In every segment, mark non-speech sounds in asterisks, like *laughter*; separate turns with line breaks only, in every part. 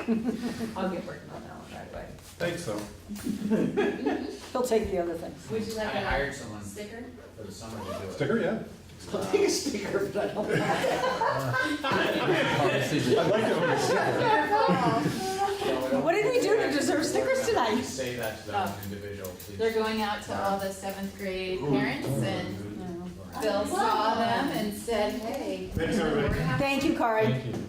I'll get working on that one right away.
Thanks, though.
He'll take the other things.
Would you
I
like a
hired someone
sticker?
for the summer to do it.
Sticker, yeah.
I'll take a sticker, but I don't want it.
I'd like to own a sticker.
What did we do to deserve stickers tonight? Oh.
Say that to that individual, please.
They're going out to all the seventh grade parents and Bill
Wow.
saw them and said, hey.
Thanks, everybody.
we're happy."
Thank you, Kari.
Thank you.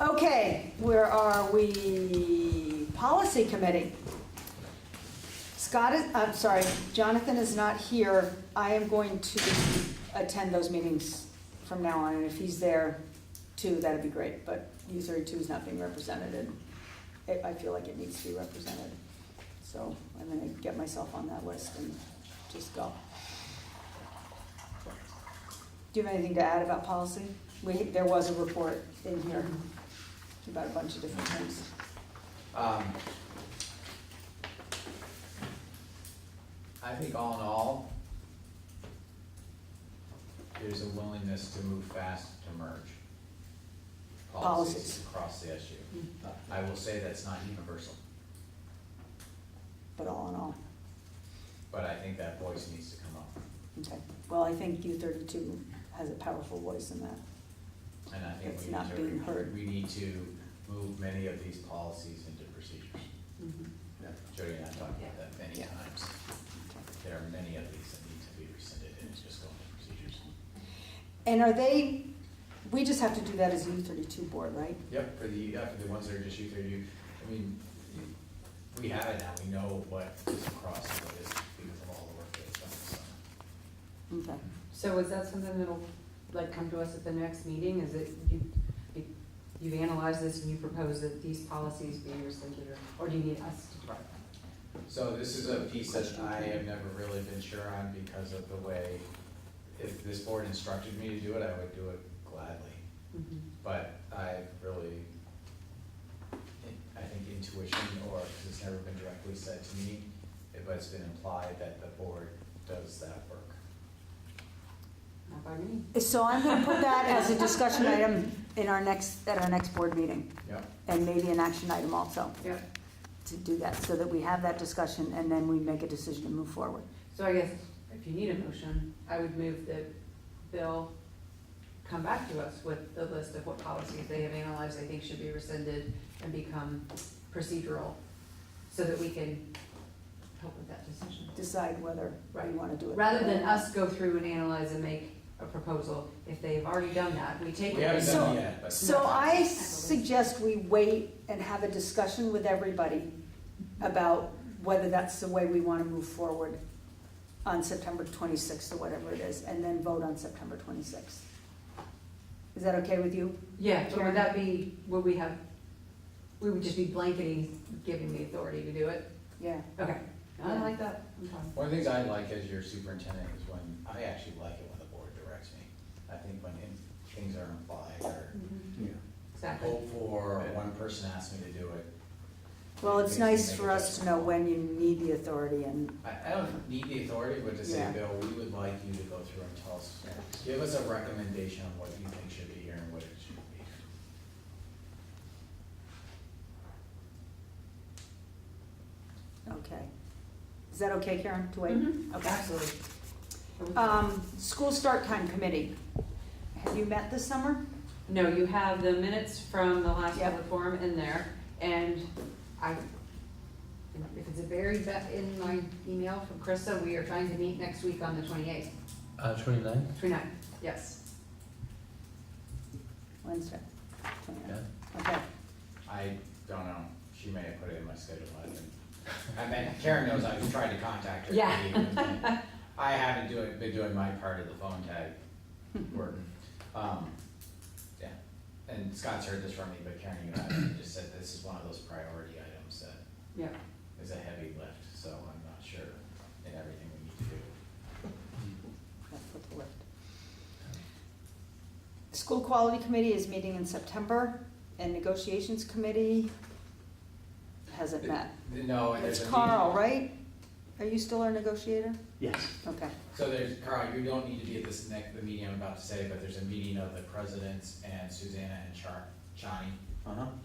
Okay, where are we? Policy Committee. Scott is, I'm sorry, Jonathan is not here. I am going to attend those meetings from now on, and if he's there too, that'd be great, but U thirty-two is not being represented, and it- I feel like it needs to be represented. So I'm gonna get myself on that list and just go. Do you have anything to add about policy? We, there was a report in here about a bunch of different things.
Um, I think all in all, there's a willingness to move fast to merge
Policies.
policies
Mm.
across the SU. I will say that's not universal,
But all in all,
but I think that voice needs to come up.
okay. Well, I think U thirty-two has a powerful voice in that.
And I think
It's
we
not being
need to,
heard.
we need to move many of these policies into procedures.
Mm-hmm.
Jody and I talked about that many
Yeah.
times. There are many of these that need to be rescinded and just go into procedures.
And are they, we just have to do that as U thirty-two board, right?
Yep, for the, yeah, for the ones that are just you through you, I mean, you- we have it now, we know what is across and what is because of all the work that's done this summer.
Okay.
So is that something that'll, like, come to us at the next meeting? Is it, you, you analyze this and you propose that these policies be rescinded, or, or do you need us to? write them?
So this is a piece that I have never really been sure on because of the way, if this board instructed me to do it, I would do it gladly.
Mhm.
But I really, I think intuition, or, because it's never been directly said to me, but it's been implied that the board does that work.
Not by me.
So I'm gonna put that as a discussion item in our next, at our next board meeting,
Yep.
and maybe an action item also,
Yeah.
to do that, so that we have that discussion, and then we make a decision to move forward.
So I guess if you need a motion, I would move that Bill come back to us with the list of what policies they have analyzed they think should be rescinded and become procedural, so that we can help with that decision.
Decide whether we
Right.
wanna do it.
Rather than us go through and analyze and make a proposal, if they've already done that, we take it.
We haven't
So-
done it yet, but.
So I suggest we wait and have a discussion with everybody about whether that's the way we wanna move forward on September twenty-sixth or whatever it is, and then vote on September twenty-sixth. Is that okay with you?
Yeah, but would that be, would we have, we would just be blanketing, giving the authority to do it?
Yeah.
Okay, I like that, I'm fine.
One of the things I like as your superintendent is when, I actually like it when the board directs me. I think when in- things are implied or
Exactly.
hopeful, or one person asked me to do it.
Well, it's
Makes me
nice
think
for us to know when you need the authority and,
I, I don't need the authority, but to say,
Yeah.
Bill, we would like you to go through and tell us, give us a recommendation on what you think should be here and what it shouldn't be.
okay. Is that okay, Karen, to wait?
Mhm.
Okay.
Absolutely. Uh,
Um, school start time committee. Have you met this summer?
No, you have the minutes from the last
Yep.
public forum in there, and I, if it's a buried ba- in my email from Krista, we are trying to meet next week on the twenty-eighth,
Uh, 29?
twenty-ninth, yes.
Wednesday?
Yeah.
Okay.
I don't know, she may have put it in my schedule, I didn't. I meant, Karen knows, I've tried to contact her.
Yeah.
*laughs* I haven't doing, been doing my part of the phone tag
*laughs*
work. Um, yeah, and Scott's heard this from me, but Karen, you and I *coughs* just said this is one of those priority items that
Yeah,
is a heavy lift, so I'm not sure in everything we need to do.
That's what the lift. School Quality Committee is meeting in September, and Negotiations Committee hasn't met.
No, and there's
It's
a.
Carl, right? Are you still our negotiator?
Yes.
Okay,
So there's, Carl, you don't need to be at this next, the meeting I'm about to say, but there's a meeting of the presidents and Susanna and Char, Johnny.
Uh-huh.